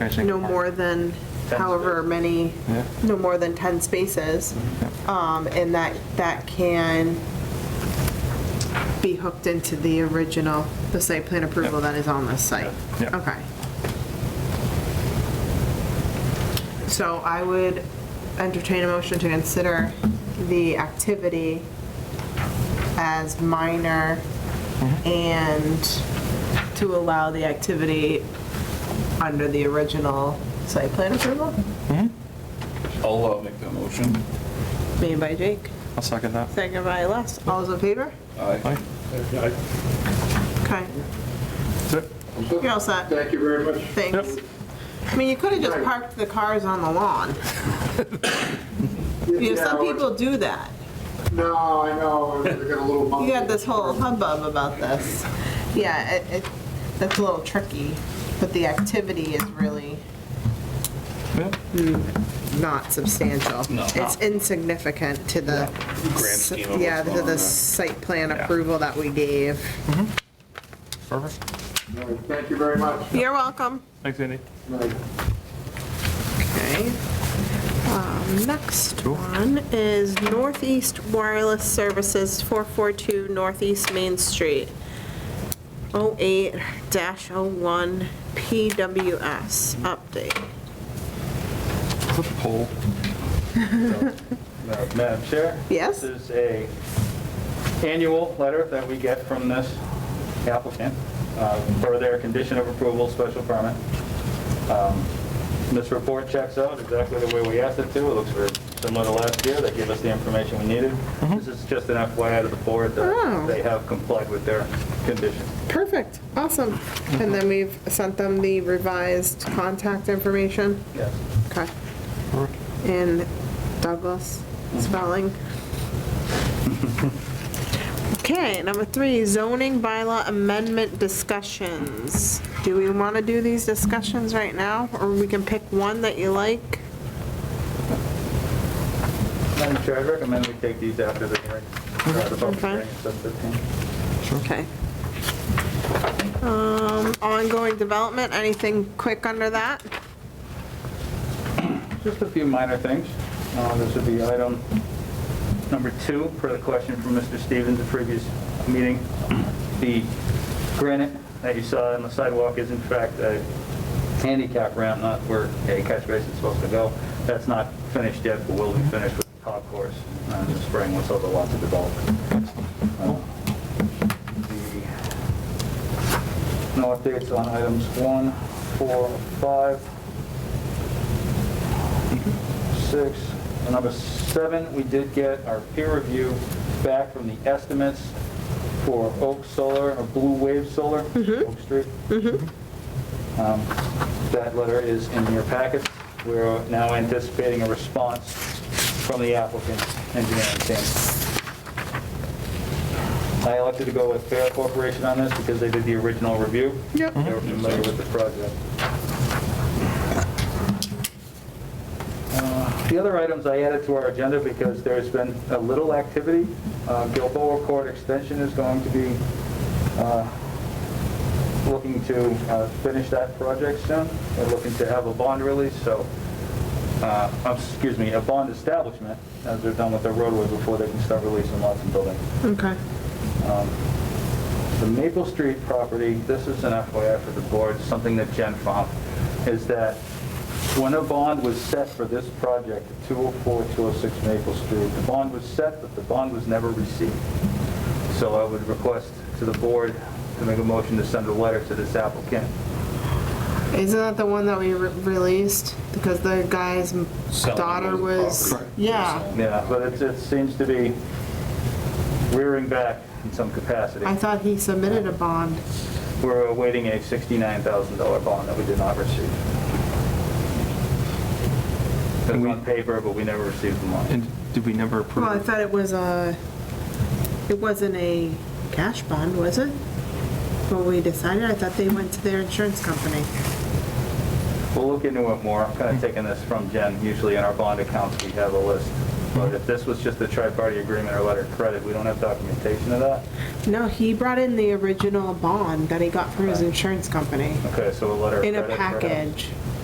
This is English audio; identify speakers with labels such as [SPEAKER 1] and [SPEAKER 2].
[SPEAKER 1] Actually,
[SPEAKER 2] no more than however many,
[SPEAKER 1] Yeah.
[SPEAKER 2] no more than 10 spaces. Um, And that, that can be hooked into the original, the site plan approval that is on this site.
[SPEAKER 1] Yeah.
[SPEAKER 2] Okay. So I would entertain a motion to consider the activity as minor
[SPEAKER 1] Mm-hmm.
[SPEAKER 2] and to allow the activity under the original site plan approval,
[SPEAKER 3] I'll uh, make that motion.
[SPEAKER 2] made by Jake,
[SPEAKER 1] I'll second that.
[SPEAKER 2] second by Les. All those in favor?
[SPEAKER 3] Aye.
[SPEAKER 1] Aye.
[SPEAKER 2] Okay,
[SPEAKER 1] That's it.
[SPEAKER 2] you're all set.
[SPEAKER 4] Thank you very much.
[SPEAKER 2] Thanks. I mean, you could have just parked the cars on the lawn. You know,
[SPEAKER 4] Yeah,
[SPEAKER 2] some
[SPEAKER 4] well,
[SPEAKER 2] people do that.
[SPEAKER 4] No, I know, we got a little
[SPEAKER 2] You
[SPEAKER 4] monkey.
[SPEAKER 2] got this whole hubbub about this. Yeah, it, it, that's a little tricky, but the activity is really
[SPEAKER 1] Yeah.
[SPEAKER 2] not substantial.
[SPEAKER 3] No.
[SPEAKER 2] It's insignificant to the.
[SPEAKER 3] Grand scheme of what's
[SPEAKER 2] Yeah,
[SPEAKER 3] going
[SPEAKER 2] to
[SPEAKER 3] on there.
[SPEAKER 2] the site plan
[SPEAKER 1] Yeah.
[SPEAKER 2] approval that we gave.
[SPEAKER 1] Perfect.
[SPEAKER 4] Thank you very much.
[SPEAKER 2] You're welcome.
[SPEAKER 1] Thanks, Andy.
[SPEAKER 4] Right.
[SPEAKER 2] Okay. Um, Next one is Northeast Wireless Services, 442 Northeast Main Street, 08-01 PWS update.
[SPEAKER 1] Flip a poll.
[SPEAKER 5] Madam Madam Chair?
[SPEAKER 2] Yes?
[SPEAKER 5] This is a annual letter that we get from this applicant uh, for their condition of approval special permit. Um, This report checks out exactly the way we asked it to. It looks very similar to last year. They gave us the information we needed. This is just an FYI to the board
[SPEAKER 2] Mm-hmm. Oh.
[SPEAKER 5] that they have complied with their condition.
[SPEAKER 2] Perfect, awesome. And then we've sent them the revised contact information.
[SPEAKER 5] Yes.
[SPEAKER 2] Okay. And Douglas spelling. Okay, number three, zoning bylaw amendment discussions. Do we want to do these discussions right now, or we can pick one that you like?
[SPEAKER 5] Madam Chair, I recommend we take these after the hearing. after the public
[SPEAKER 2] Okay.
[SPEAKER 5] hearing, it's up to 10.
[SPEAKER 2] Okay. Um, ongoing development, anything quick under that?
[SPEAKER 5] Just a few minor things. Uh, This would be item number two, for the question from Mr. Stevens at previous meeting. The granite that you saw on the sidewalk is in fact a handicap ramp, not where a catch basin is supposed to go. That's not finished yet, but will be finished with the top course uh, in the spring once all the lots are developed. Uh, the- No updates on items one, four, five six, and number seven, we did get our peer review back from the estimates for Oak Solar, or Blue Wave Solar, Oak Street. Um, That letter is in your packets. We're now anticipating a response from the applicant engineering team. I elected to go with Fair Corporation on this because they did the original review.
[SPEAKER 2] Yep.
[SPEAKER 5] They were familiar with the project. Uh, The other items I added to our agenda because there's been a little activity. Uh, Gilboa Court Extension is going to be uh, looking to uh, finish that project soon. They're looking to have a bond release, so, uh, um, excuse me, a bond establishment as they're done with their roadway before they can start releasing lots and buildings.
[SPEAKER 2] Okay.
[SPEAKER 5] The Maple Street property, this is an FYI for the board, something that Jen found, is that when a bond was set for this project, 204, 206 Maple Street, the bond was set, but the bond was never received. So I would request to the board to make a motion to send a letter to this applicant.
[SPEAKER 2] Isn't that the one that we re- released? Because the guy's m-
[SPEAKER 3] Selling
[SPEAKER 2] daughter
[SPEAKER 3] his
[SPEAKER 2] was,
[SPEAKER 3] property.
[SPEAKER 2] yeah.
[SPEAKER 5] Yeah, but it, it seems to be rearing back in some capacity.
[SPEAKER 2] I thought he submitted a bond.
[SPEAKER 5] We're awaiting a $69,000 bond that we did not receive. It was on paper, but we never received the money.
[SPEAKER 1] And did we never approve?
[SPEAKER 2] Well, I
[SPEAKER 1] it?
[SPEAKER 2] thought it was a, it wasn't a cash bond, was it? Well, we decided, I thought they went to their insurance company.
[SPEAKER 5] We'll look into it more. I'm kind of taking this from Jen. Usually in our bond accounts, we have a list. But if this was just a tri-party agreement or letter of credit, we don't have documentation of that.
[SPEAKER 2] No, he brought in the original bond that he got from his insurance company
[SPEAKER 5] Okay, so a letter of
[SPEAKER 2] in
[SPEAKER 5] credit.
[SPEAKER 2] a
[SPEAKER 5] perhaps.
[SPEAKER 2] package.